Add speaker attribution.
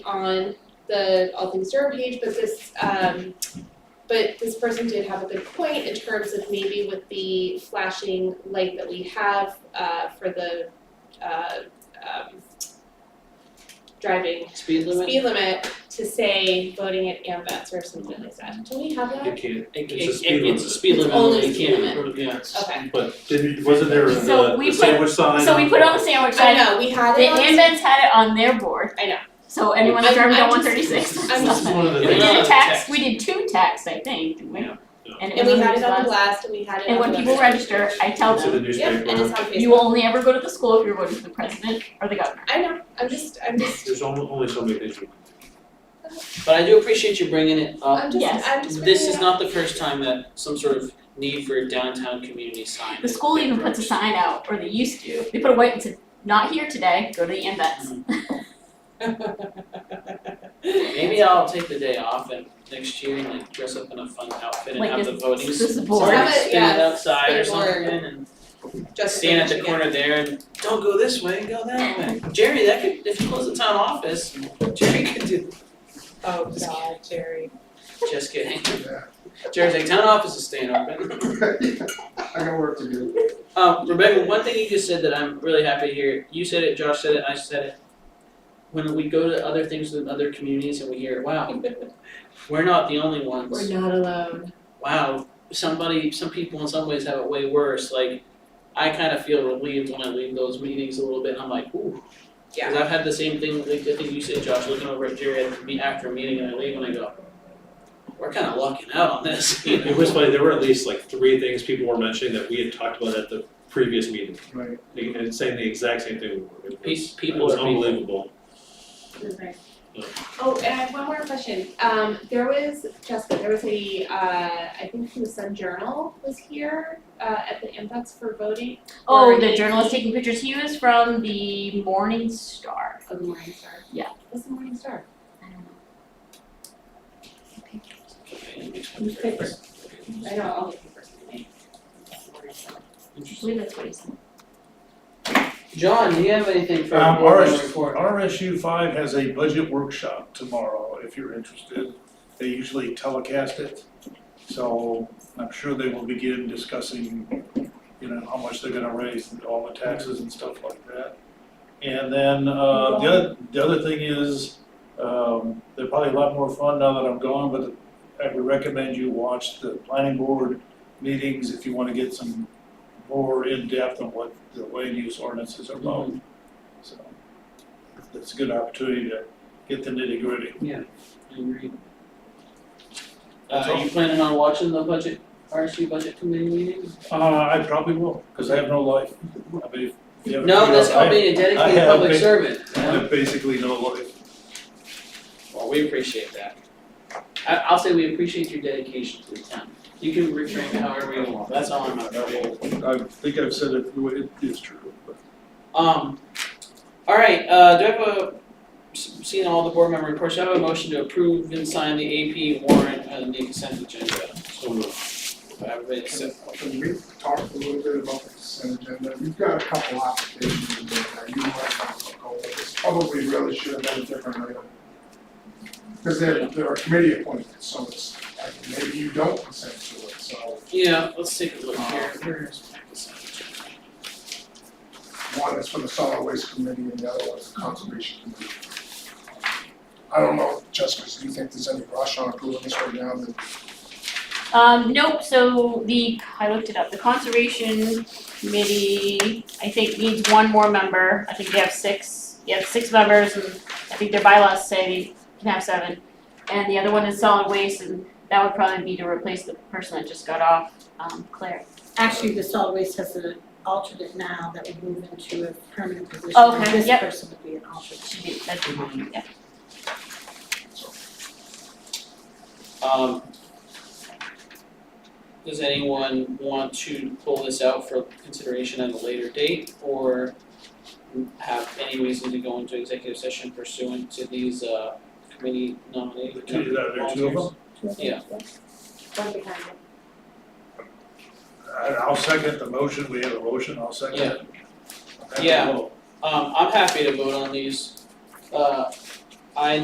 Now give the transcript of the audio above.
Speaker 1: on the All Things Durham page, but this, um, but this person did have a good point in terms of maybe with the flashing light that we have, uh, for the, uh, um, driving
Speaker 2: Speed limit?
Speaker 1: speed limit to say voting at ambets or something like that. Do we have
Speaker 3: You
Speaker 1: that?
Speaker 3: can't,
Speaker 2: It-
Speaker 3: it's a
Speaker 2: it-
Speaker 3: speed
Speaker 2: It's a
Speaker 3: limit.
Speaker 2: speed limit,
Speaker 1: Only
Speaker 2: you
Speaker 1: speed
Speaker 2: can't, yeah, it's-
Speaker 1: Okay.
Speaker 3: but didn't, wasn't there the,
Speaker 4: So
Speaker 3: the
Speaker 4: we put-
Speaker 3: sandwich sign?
Speaker 4: So we put it on the sandwich
Speaker 1: I
Speaker 4: sign.
Speaker 1: know, we had
Speaker 4: The
Speaker 1: it on.
Speaker 4: Ambens had it on their board.
Speaker 1: I know.
Speaker 4: So anyone that's
Speaker 1: I'm-
Speaker 4: driving
Speaker 1: I'm
Speaker 4: down one
Speaker 1: just-
Speaker 4: thirty six.
Speaker 1: I'm
Speaker 3: This is one of the
Speaker 2: Yeah,
Speaker 4: We
Speaker 3: things.
Speaker 4: did a
Speaker 2: Another
Speaker 4: tax,
Speaker 2: tax.
Speaker 4: we did two tax, I think, didn't we?
Speaker 2: Yeah, yeah.
Speaker 4: And
Speaker 1: And we
Speaker 4: was
Speaker 1: had it on
Speaker 4: on-
Speaker 1: the blast and we had it on
Speaker 4: And
Speaker 1: the
Speaker 4: when people
Speaker 1: website.
Speaker 4: register, I tell
Speaker 3: It's in the
Speaker 4: them,
Speaker 1: Yep, and it's
Speaker 3: newspaper,
Speaker 1: on Facebook.
Speaker 4: you will only ever go to the school if you're voting for the president or the governor.
Speaker 1: I know, I'm just, I'm just,
Speaker 3: there's only, only so many things we can do.
Speaker 2: But I do appreciate you bringing it up.
Speaker 1: I'm just,
Speaker 4: yes.
Speaker 1: I'm just.
Speaker 2: This
Speaker 1: bringing
Speaker 2: is
Speaker 1: it
Speaker 2: not the first time that some sort of need for a downtown community sign.
Speaker 4: The school even puts a sign out, or they used to, they put a white and said, not here today, go to the Ambens.
Speaker 2: Maybe I'll take the day off and next year and like dress up in a fun outfit and
Speaker 4: Like
Speaker 2: have the
Speaker 4: this-
Speaker 2: voting
Speaker 4: this
Speaker 2: s-
Speaker 4: board.
Speaker 2: board
Speaker 1: Have it,
Speaker 2: spin
Speaker 1: yes,
Speaker 2: it outside or
Speaker 1: spin
Speaker 2: something
Speaker 1: board.
Speaker 2: and
Speaker 1: up. Just
Speaker 2: stand at the
Speaker 1: mentioning it.
Speaker 2: corner there and don't go this way, go that way. Jerry, that could, if you close the town office, Jerry could do,
Speaker 1: Oh, God, Jerry.
Speaker 2: just kidding. Jerry's like, town office is staying open.
Speaker 5: I got work to do.
Speaker 2: Um, Rebecca, one thing you just said that I'm really happy to hear. You said it, Josh said it, I said it. When we go to other things with other communities and we hear, wow, we're not the only
Speaker 1: We're
Speaker 2: ones.
Speaker 1: not alone.
Speaker 2: Wow, somebody, some people in some ways have it way worse. Like, I kind of feel relieved when I leave those meetings a little bit. I'm like, ooh. Because I've had the same thing, like I think you said, Josh, looking over at Jerry at the meet after a meeting and I leave and I go, we're kind of lucking out on this, you know?
Speaker 3: It was funny, there were at least like three things people were mentioning that we had talked about at the previous meeting,
Speaker 5: Right.
Speaker 3: and and saying the exact same thing. It was-
Speaker 2: Pe- people
Speaker 3: It was
Speaker 2: are people.
Speaker 3: unbelievable.
Speaker 1: Oh, and I have one more question. Um, there was, Jessica, there was a, uh, I think the Sun Journal was here, uh, at the Ambets for voting.
Speaker 4: Oh,
Speaker 1: Or
Speaker 4: the
Speaker 1: the-
Speaker 4: journalist taking pictures, he was from the Morning Star.
Speaker 1: Oh, the Morning Star.
Speaker 4: Yeah.
Speaker 1: What's the Morning Star?
Speaker 4: I don't know.
Speaker 2: Okay, it makes me
Speaker 1: Newspaper.
Speaker 2: nervous.
Speaker 1: I know all the papers. anyway.
Speaker 4: I believe that's what he said.
Speaker 2: John, do you have anything for
Speaker 5: Um,
Speaker 2: board
Speaker 5: RSU
Speaker 2: report?
Speaker 5: RSU five has a budget workshop tomorrow, if you're interested. They usually telecast it. So I'm sure they will begin discussing, you know, how much they're gonna raise and all the taxes and stuff like that. And then, uh, the other, the other thing is, um, they're probably a lot more fun now that I'm gone, but I would recommend you watch the planning board meetings if you wanna get some more in-depth on what the land use ordinances are about. So that's a good opportunity to get the nitty gritty.
Speaker 2: I agree.
Speaker 5: That's
Speaker 2: Uh,
Speaker 5: all.
Speaker 2: you planning on watching the budget, RSU budget committee meeting?
Speaker 5: Uh, I probably will, because I have no life. I mean, if you have.
Speaker 2: No, that's
Speaker 5: I-
Speaker 2: called being a
Speaker 5: I
Speaker 2: dedicated
Speaker 5: have
Speaker 2: public
Speaker 5: been-
Speaker 2: servant.
Speaker 5: I have basically no life.
Speaker 2: Well, we appreciate that. I, I'll say we appreciate your dedication to the town. You can reframe it however you want, that's all I'm about.
Speaker 5: I think I've said it, the way it is true, but.
Speaker 2: Um, all right, uh, do I have a, s- seeing all the board member reports, do I have a motion to approve and sign the AP warrant and the consent agenda?
Speaker 3: So moved.
Speaker 2: Do I have a second?
Speaker 6: Can we talk a little bit about the consent agenda? We've got a couple applications in there that you might want to go over. This probably really should have been a different item. Because they're, they're a committee appointments, so it's, like, maybe you don't consent to it, so uh,
Speaker 2: Yeah, let's take a look here, Here's my consent agenda.
Speaker 6: one is for the solid waste committee and the other one is the conservation committee. I don't know, Jessica, do you think there's any rush on approving this right now? That-
Speaker 4: Um, nope, so the, I looked it up, the conservation committee, I think needs one more member, I think they have six, you have six members, and I think their bylaws say they can have seven. And the other one is solid waste, and that would probably be to replace the person that just got off, um, Claire.
Speaker 7: Actually, the solid waste has an alternate now that would move into a permanent position.
Speaker 4: Okay,
Speaker 7: and This
Speaker 4: yep.
Speaker 7: person would be an alternate.
Speaker 4: Should be, that'd be mine, yeah.
Speaker 2: Um, does anyone want to pull this out for consideration at a later date or have any reason to go into executive session pursuant to these, uh, committee nominate?
Speaker 5: The two, there are two of them?
Speaker 2: Yeah.
Speaker 7: One behind it.
Speaker 5: I- I'll second the motion, we have a motion, I'll second it.
Speaker 2: Yeah. Um, I'm happy to vote on these. Uh, I